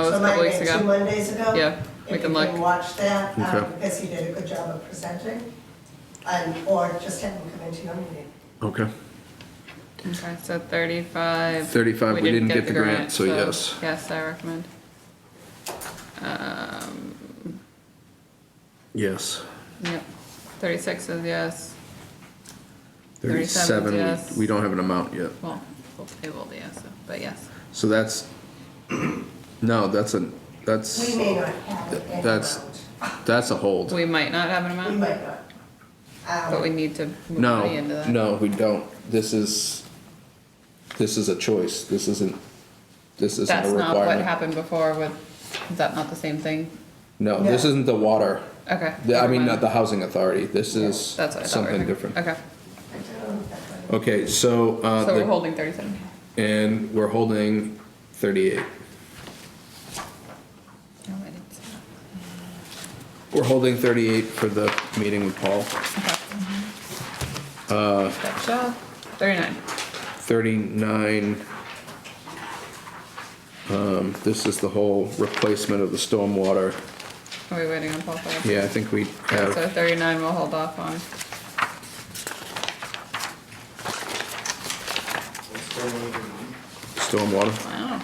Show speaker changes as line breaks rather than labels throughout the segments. couple weeks
Monday,
ago.
Two Mondays ago.
Yeah, we can
If you
look.
can watch that, um,
Okay.
because he did a good job of presenting, and, or just have him come into your meeting.
Okay.
Okay, so thirty-five.
35, we didn't get the grant, so yes.
Yes, I recommend. Um,
Yes.
yep, thirty-six is yes, 37 's
Thirty-seven,
yes.
we, we don't have an amount yet.
well, we'll table the yes, so- but yes.
So that's, no, that's a,
We
that's,
may not have it in
that's,
amount.
that's a hold.
We might not have an
We
amount,
might not.
but we
Um,
need to move money
No,
into that.
no, we don't. This is, this is a choice. This isn't, this isn't a
That's not what
requirement.
happened before with, is that not the same thing?
No, this
No.
isn't the water.
Okay.
The- I
never
mean,
mind.
not the housing authority. This is
That's what I thought. we were
something
doing.
different.
Okay,
I don't know if that's what-
Okay, so, uh,
so
the-
we're holding thirty-seven.
and we're holding thirty-eight.
No, I didn't see
We're holding thirty-eight for the meeting with Paul.
that. Okay.
Uh,
Gotcha. Thirty-nine.
39, um, this is the whole replacement of the stormwater.
Are we waiting on Paul for that?
Yeah, I think we
Okay, So
have,
thirty-nine we'll hold off on.
stormwater.
Wow.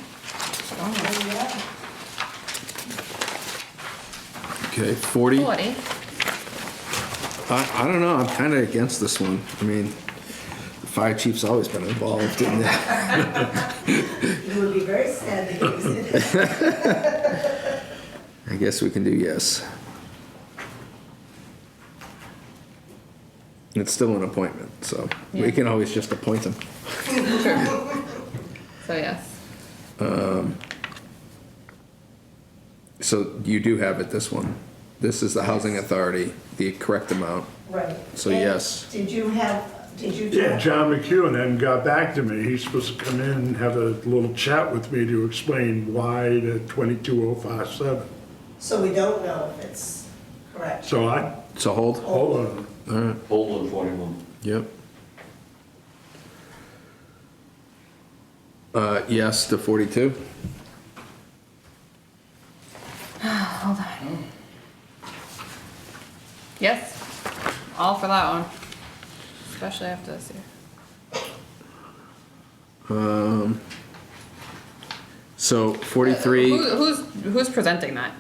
Oh,
Yeah.
Okay, 40, I,
Forty.
I don't know, I'm kind of against this one. I mean, the fire chief's always been involved in that.
You would be very sad to hear you say that.
I guess we can do yes. It's still an appointment, so
Yeah.
we can always just appoint them.
So yes.
So you do have it, this one. This is the housing authority, the correct amount.
Right.
So
And
yes.
Did you have, did you?
Yeah, John McEwen hadn't got back to me. He's supposed to come in and have a little chat with me to explain why the 22057.
So we don't know if it's correct.
So I,
So hold?
hold on,
All right,
Hold on forty-one.
yep. Uh, yes to forty-two?
Hold on. Yes. All for that one. Especially after this year.
So forty-three,
Who, who's who's presenting that?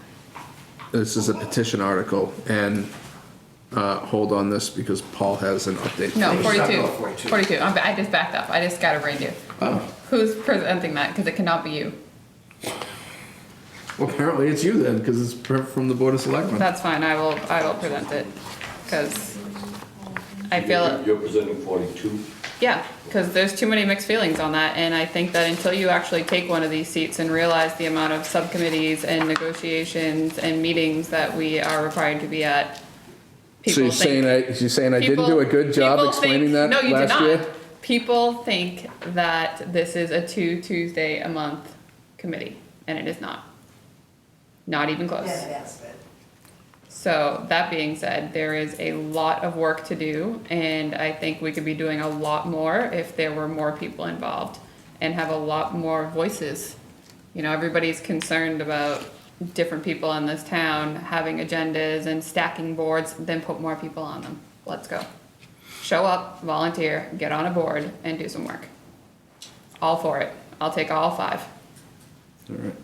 this is a petition article, and, uh, hold on this because Paul has an update.
No,
for us.
42. 42. I'm, I just backed up. I just got a you.
Oh,
Who's presenting that? Because it cannot be you.
well, apparently it's you then, because it's per- from the Board of Selectmen.
That's fine. I will. I will present it. Because I feel. it.
You're presenting forty-two.
Yeah, because there's too many mixed feelings on that, and I think that until you actually take one of these seats and realize the amount of subcommittees and negotiations and meetings that we are required to be at,
So you're
people
saying
think.
I, you're saying I didn't do a good
people-
job
people
explaining
think-
that
No, you did
last
not.
year?
People think that this is a two Tuesday a month committee, and it is not. Not even close.
Yeah, it has been.
So, that being said, there is a lot of work to do, and I think we could be doing a lot more if there were more people involved and have a lot more voices. You know, everybody's concerned about different people in this town having agendas and stacking boards, then put more people on them. Let's go. Show up, volunteer, get on a board, and do some work. All for it. I'll take all five.
All right.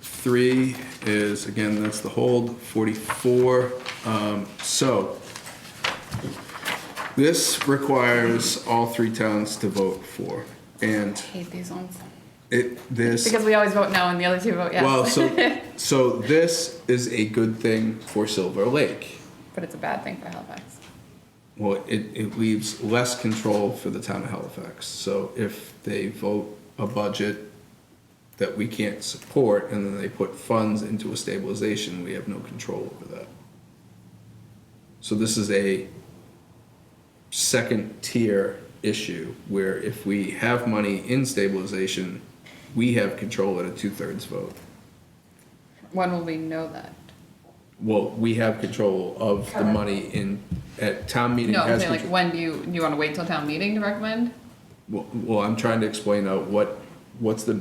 Forty-three is, again, that's the hold, forty-four, um, so. This requires all three towns to vote for, and
Hate these ones.
it, this,
Because we always vote no and the other two vote yes.
well, so, so this is a good thing for Silver Lake.
But it's a bad thing for Halifax.
Well, it, it leaves less control for the town of Halifax. So if they vote a budget that we can't support and then they put funds into a stabilization, we have no control over that. So this is a second tier issue where if we have money in stabilization, we have control at a two thirds vote.
When will we know that?
Well, we have control of the
Correct.
money in, at town meeting
No, I'm
has
saying like,
control-
when do you, do you wanna wait till town meeting to recommend?
Well, well, I'm trying to explain out what, what's the